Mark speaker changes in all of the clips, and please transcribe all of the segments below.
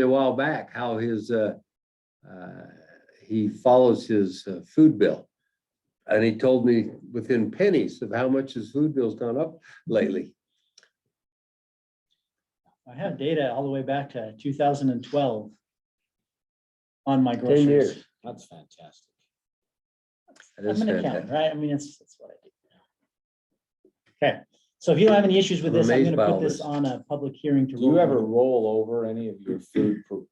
Speaker 1: a while back, how his, uh, uh, he follows his uh, food bill. And he told me within pennies of how much his food bill's gone up lately.
Speaker 2: I have data all the way back to two thousand and twelve on my
Speaker 3: 10
Speaker 2: groceries.
Speaker 3: years. That's fantastic.
Speaker 1: That is
Speaker 2: I'm an
Speaker 1: fantastic.
Speaker 2: accountant, right? I mean, it's, that's what I do. Okay, so if you don't have any issues with
Speaker 1: I'm
Speaker 2: this, I'm
Speaker 1: amazed by
Speaker 2: gonna
Speaker 1: all
Speaker 2: put this
Speaker 1: this.
Speaker 2: on a public hearing to.
Speaker 3: Do you
Speaker 2: roll
Speaker 3: ever
Speaker 2: on.
Speaker 3: roll over any of your food? pro-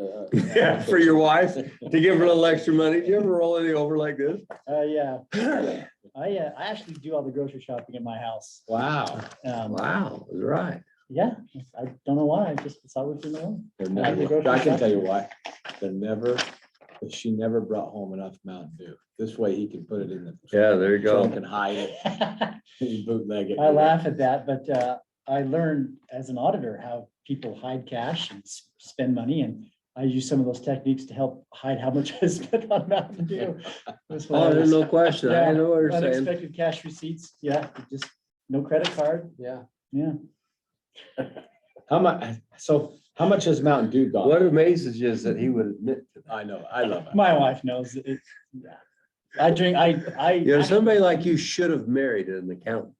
Speaker 3: uh,
Speaker 1: Yeah, for your wife, to give her a little extra money. Do you ever roll any over like this?
Speaker 2: Uh, yeah, I, uh, I actually do all the grocery shopping at my house.
Speaker 1: Wow,
Speaker 2: Um,
Speaker 1: wow, that's right.
Speaker 2: yeah, I don't know why, I just, it's always been the one.
Speaker 3: They're
Speaker 2: I can
Speaker 3: never-
Speaker 2: go
Speaker 3: I
Speaker 2: for
Speaker 3: can tell you why. They're never, she never brought home enough Mountain Dew. This way he can put it in the.
Speaker 1: Yeah, there you
Speaker 3: trunk
Speaker 1: go.
Speaker 3: and hide it, and bootleg it.
Speaker 2: I laugh at that, but uh, I learned as an auditor how people hide cash and s- spend money, and I use some of those techniques to help hide how much I spent on Mountain Dew. That's
Speaker 1: Oh, there's
Speaker 2: hilarious.
Speaker 1: no question. I know what you're saying.
Speaker 2: Unexpected cash receipts, yeah, just no credit card,
Speaker 3: Yeah.
Speaker 2: yeah.
Speaker 3: How much, so how much has Mountain Dew gone?
Speaker 1: What amazes you is that he would admit to that.
Speaker 3: I know, I love it.
Speaker 2: My wife knows it. it- yeah. I drink, I, I.
Speaker 1: You know, somebody like you should have married an accountant.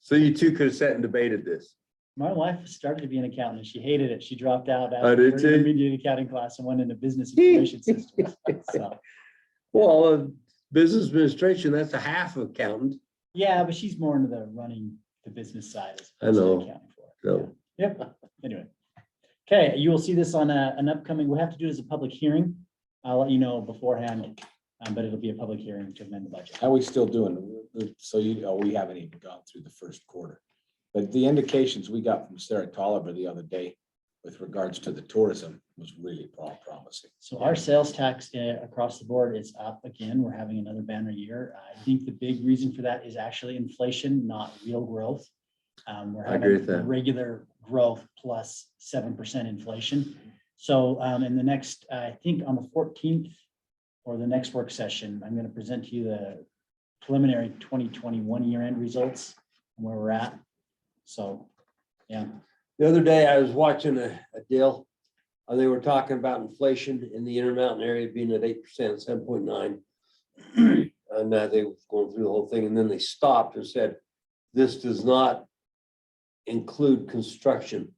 Speaker 1: So you two could have sat and debated this.
Speaker 2: My wife started to be an accountant. and She hated it. She dropped out
Speaker 1: Oh,
Speaker 2: after
Speaker 1: did
Speaker 2: her
Speaker 1: she?
Speaker 2: intermediate accounting class and went into business information systems. So,
Speaker 1: Well, uh, business administration, that's a half accountant.
Speaker 2: Yeah, but she's more into the running the business side. as
Speaker 1: I
Speaker 2: opposed to
Speaker 1: know.
Speaker 2: accounting for it.
Speaker 1: So,
Speaker 2: Yep, anyway. Okay, you will see this on a, an upcoming, we'll have to do it as a public hearing. I'll let you know beforehand, um, but it'll be a public hearing to amend the budget.
Speaker 3: How we still doing? So you, oh, we haven't even gone through the first quarter. But the indications we got from Sarah Tolliver the other day with regards to the tourism was really pro- promising.
Speaker 2: So our sales tax uh, across the board is up again. We're having another banner year. I think the big reason for that is actually inflation, not real growth. Um, we're
Speaker 1: I agree with
Speaker 2: having
Speaker 1: that.
Speaker 2: regular growth plus seven percent inflation. So, um, in the next, I think on the fourteenth or the next work session, I'm gonna present to you the preliminary twenty twenty-one year end results and where we're at. So, yeah,
Speaker 1: the other day I was watching a, a deal. And they were talking about inflation in the Intermountain area being at eight percent, seven point nine. And uh, they were going through the whole thing and then they stopped and said, this does not include construction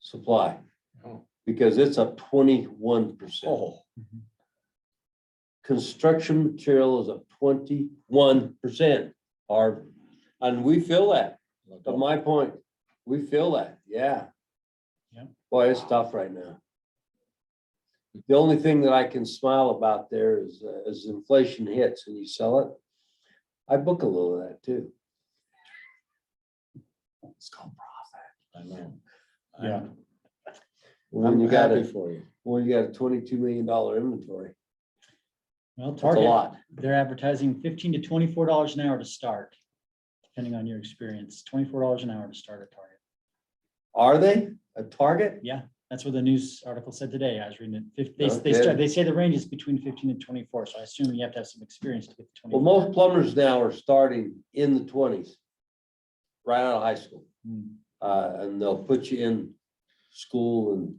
Speaker 1: supply.
Speaker 3: Oh.
Speaker 1: Because it's up twenty-one percent.
Speaker 3: Oh,
Speaker 1: construction material is up twenty-one percent, Harv. And we feel that, but my point, we feel that, yeah.
Speaker 2: Yeah.
Speaker 1: Boy, it's tough right now. The only thing that I can smile about there is, uh, as inflation hits and you sell it, I book a little of that too.
Speaker 3: it's called profit. I know.
Speaker 2: Yeah.
Speaker 1: When
Speaker 3: I'm
Speaker 1: you got
Speaker 3: happy
Speaker 1: a,
Speaker 3: for you.
Speaker 1: when you got a twenty-two million dollar inventory,
Speaker 2: well,
Speaker 1: that's a
Speaker 2: Target.
Speaker 1: lot.
Speaker 2: They're advertising fifteen to twenty-four dollars an hour to start, depending on your experience, twenty-four dollars an hour to start at Target.
Speaker 1: Are they a target?
Speaker 2: Yeah, that's what the news article said today. I was reading it. Fif- They,
Speaker 1: No
Speaker 2: they start,
Speaker 1: kidding.
Speaker 2: they say the range is between fifteen and twenty-four, so I assume you have to have some experience to get to
Speaker 1: Well,
Speaker 2: twenty-four.
Speaker 1: most plumbers now are starting in the twenties, right out of high school.
Speaker 2: Hmm.
Speaker 1: uh, and they'll put you in school and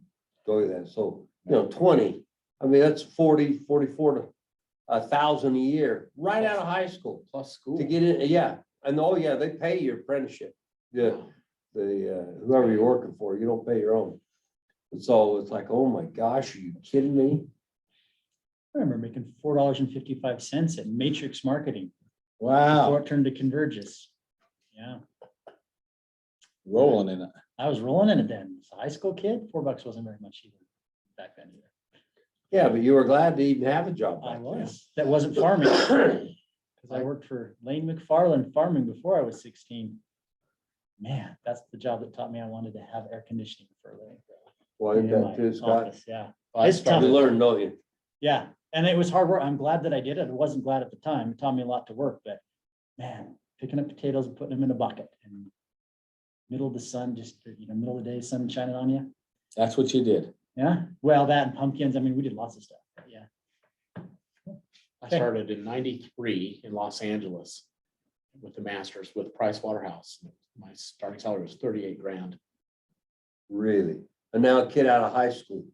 Speaker 1: go to that. So, you know, twenty, I mean, that's 40, 44 to a thousand a year, right out of high school
Speaker 3: Plus
Speaker 1: to
Speaker 3: school.
Speaker 1: get in. Yeah. And oh, yeah, they pay your apprenticeship. The, the, uh, whoever you're working for, you don't pay your own. And so it's like, oh my gosh, are you kidding me?
Speaker 2: I remember making four dollars and fifty-five cents at Matrix Marketing before
Speaker 3: Wow,
Speaker 2: it turned to Convergys. Yeah,
Speaker 3: rolling in it.
Speaker 2: I was rolling in it then. As a high school kid, four bucks wasn't very much either back then either.
Speaker 1: Yeah, but you were glad to even have a job.
Speaker 2: I
Speaker 1: back then.
Speaker 2: was, that wasn't farming. Cause I worked for Lane McFarland Farming before I was sixteen. Man, that's the job that taught me I wanted to have air conditioning for a living.
Speaker 1: Well, isn't
Speaker 2: In
Speaker 1: that
Speaker 2: my
Speaker 1: true, Scott?
Speaker 2: office, Yeah,
Speaker 3: I
Speaker 2: It's tough.
Speaker 1: You
Speaker 3: started,
Speaker 1: learn, don't you?
Speaker 2: yeah. And it was hard work. I'm glad that I did it. I wasn't glad at the time. It taught me a lot to work, but man, picking up potatoes and putting them in a bucket and middle of the sun, just, you know, middle of the day, sun shining on you.
Speaker 3: that's what you did.
Speaker 2: Yeah, well, that and pumpkins. I mean, we did lots of stuff. but Yeah.
Speaker 4: I
Speaker 2: Okay.
Speaker 4: started in ninety-three in Los Angeles with the masters with Price Waterhouse. My starting salary was thirty-eight grand.
Speaker 1: Really? And now a kid out of high school